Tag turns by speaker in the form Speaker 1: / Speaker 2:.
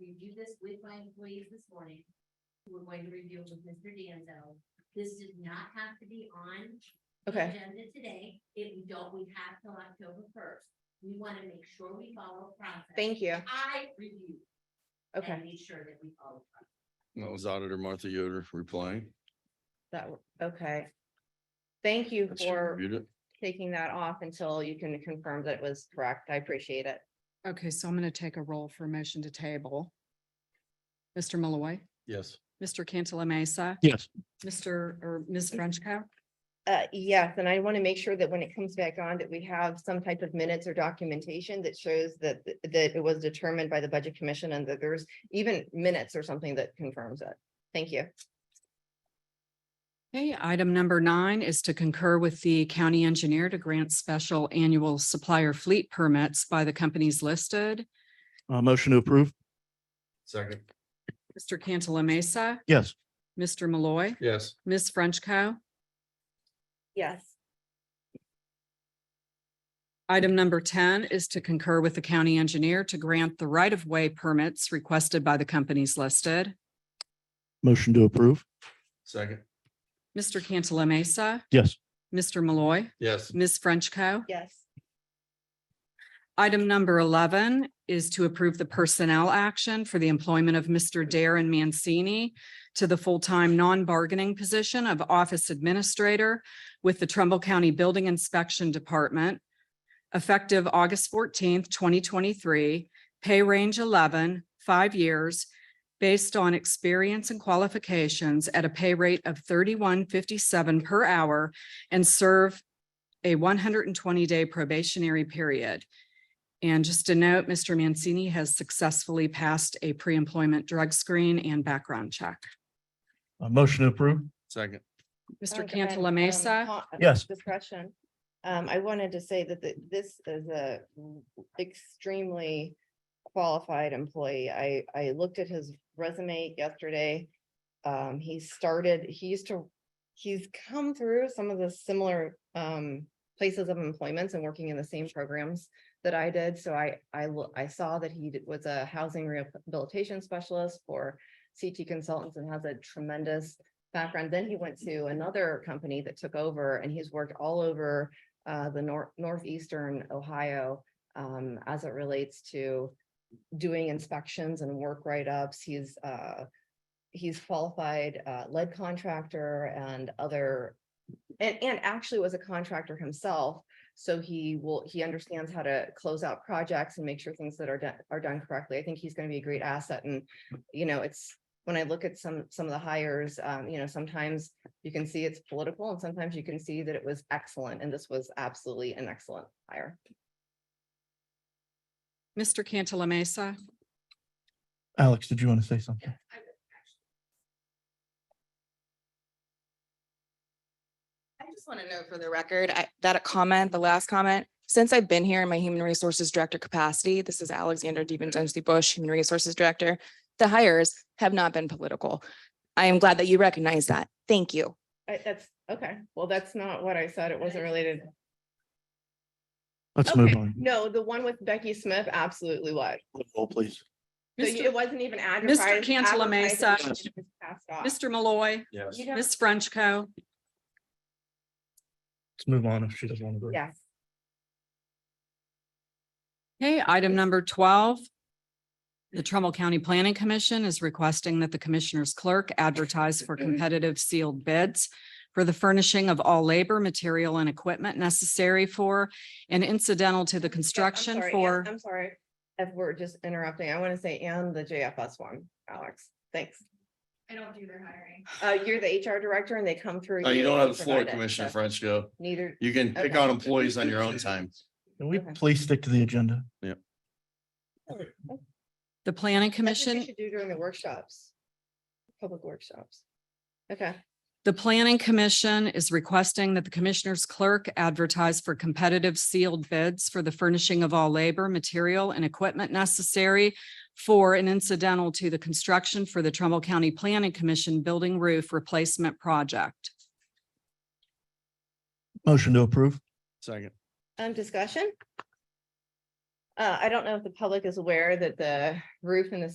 Speaker 1: reviewed this with my employees this morning. who We're going to review it with Mr. Danzo. This does not have to be on the
Speaker 2: Okay,
Speaker 1: agenda today. If we don't, we have till October first. We want to make sure we follow process.
Speaker 2: thank you.
Speaker 1: I review. and
Speaker 2: Okay,
Speaker 1: Make sure that we follow. process.
Speaker 3: That was Auditor Martha Yoder replying.
Speaker 2: that, w- okay. Thank you
Speaker 3: that she
Speaker 2: for
Speaker 3: reviewed it.
Speaker 2: taking that off until you can confirm that it was correct. I appreciate it.
Speaker 4: Okay, so I'm going to take a roll for motion to table. Mr. Malloy,
Speaker 3: Yes.
Speaker 4: Mr. Cantala Mesa,
Speaker 3: Yes.
Speaker 4: Mr. or Ms. Frenchco.
Speaker 2: Uh, yes, and I want to make sure that when it comes back on, that we have some type of minutes or documentation that shows that, that it was determined by the Budget Commission and that there's even minutes or something that confirms it. Thank you.
Speaker 4: Okay, item number nine is to concur with the county engineer to grant special annual supplier fleet permits by the companies listed.
Speaker 5: Uh, motion to approve?
Speaker 3: Second.
Speaker 4: Mr. Cantala Mesa,
Speaker 5: Yes.
Speaker 4: Mr. Malloy,
Speaker 3: Yes.
Speaker 4: Ms. Frenchco.
Speaker 2: Yes.
Speaker 4: Item number ten is to concur with the county engineer to grant the right-of-way permits requested by the companies listed.
Speaker 5: Motion to approve?
Speaker 3: Second.
Speaker 4: Mr. Cantala Mesa,
Speaker 5: Yes.
Speaker 4: Mr. Malloy,
Speaker 3: Yes.
Speaker 4: Ms. Frenchco.
Speaker 2: Yes.
Speaker 4: Item number eleven is to approve the personnel action for the employment of Mr. Darren Mancini to the full-time non-bargaining position of office administrator with the Trumbull County Building Inspection Department effective August fourteenth, twenty twenty-three, pay range 11, five years, based on experience and qualifications at a pay rate of thirty-one fifty-seven per hour and serve a one hundred and twenty-day probationary period. And just a note, Mr. Mancini has successfully passed a pre-employment drug screen and background check.
Speaker 5: Uh, motion to approve?
Speaker 3: Second.
Speaker 4: Mr.
Speaker 2: And- and,
Speaker 4: Cantala
Speaker 2: um,
Speaker 4: Mesa,
Speaker 2: co- uh,
Speaker 5: Yes.
Speaker 2: Discussion. Um, I wanted to say that the- this is a extremely qualified employee. I, I looked at his resume yesterday. Um, he started, he used to, he's come through some of the similar, um, places of employments and working in the same programs that I did. So I, I, lo- I saw that he did- was a housing rehabilitation specialist for CT Consultants and has a tremendous background. Then he went to another company that took over and he's worked all over uh, the nor- northeastern Ohio um, as it relates to doing inspections and work write-ups. He's uh, he's qualified uh, lead contractor and other and, and actually was a contractor himself. So he will, he understands how to close out projects and make sure things that are done are done correctly. I think he's going to be a great asset and you know, it's when I look at some, some of the hires, um, you know, sometimes you can see it's political and sometimes you can see that it was excellent and this was absolutely an excellent hire.
Speaker 4: Mr. Cantala Mesa,
Speaker 5: Alex, did you want to say something?
Speaker 1: Yes, I would, actually.
Speaker 6: I just want to know for the record, I, that a comment, the last comment, since I've been here in my human resources director capacity, this is Alexander DiVincenzi Bush, Human Resources Director. The hires have not been political. I am glad that you recognize that. Thank you.
Speaker 2: I, that's, okay, well, that's not what I said. It wasn't related.
Speaker 5: Let's move
Speaker 2: Okay,
Speaker 5: on.
Speaker 2: no, the one with Becky Smith absolutely was.
Speaker 5: Roll, please.
Speaker 2: So you- it wasn't even advertised.
Speaker 4: Cantala
Speaker 2: advertised,
Speaker 4: Mesa.
Speaker 2: it was just passed off.
Speaker 4: Mr. Malloy,
Speaker 3: Yes.
Speaker 2: You don't-
Speaker 4: Ms. Frenchco.
Speaker 5: Let's move on if she doesn't want to. go.
Speaker 2: Yes,
Speaker 4: Okay, item number twelve. The Trumbull County Planning Commission is requesting that the Commissioner's Clerk advertise
Speaker 2: Mm.
Speaker 4: for competitive sealed bids for the furnishing of all labor, material, and equipment necessary for and incidental to the
Speaker 2: I'm
Speaker 4: construction
Speaker 2: sorry, um, Ann,
Speaker 4: for.
Speaker 2: I'm sorry, if we're just interrupting, I want to say, and the JFS one, Alex, thanks.
Speaker 1: I don't do their hiring.
Speaker 2: Uh, you're the HR director and they come through.
Speaker 3: No, Oh, you don't have the floor,
Speaker 2: provide it,
Speaker 3: Commissioner
Speaker 2: so
Speaker 3: Frenchco.
Speaker 2: Neither,
Speaker 3: You can pick
Speaker 2: Okay.
Speaker 3: on employees on your own time.
Speaker 5: Can we
Speaker 2: Okay.
Speaker 5: please stick to the agenda?
Speaker 4: The Planning
Speaker 2: That's what we
Speaker 4: Commission
Speaker 2: Should do during the workshops. Public workshops. Okay,
Speaker 4: The Planning Commission is requesting that the Commissioner's Clerk advertise for competitive sealed bids for the furnishing of all labor, material, and equipment necessary for and incidental to the construction for the Trumbull County Planning Commission Building Roof Replacement Project.
Speaker 5: Motion to approve?
Speaker 3: Second.
Speaker 2: um, discussion? Uh, I don't know if the public is aware that the roof in the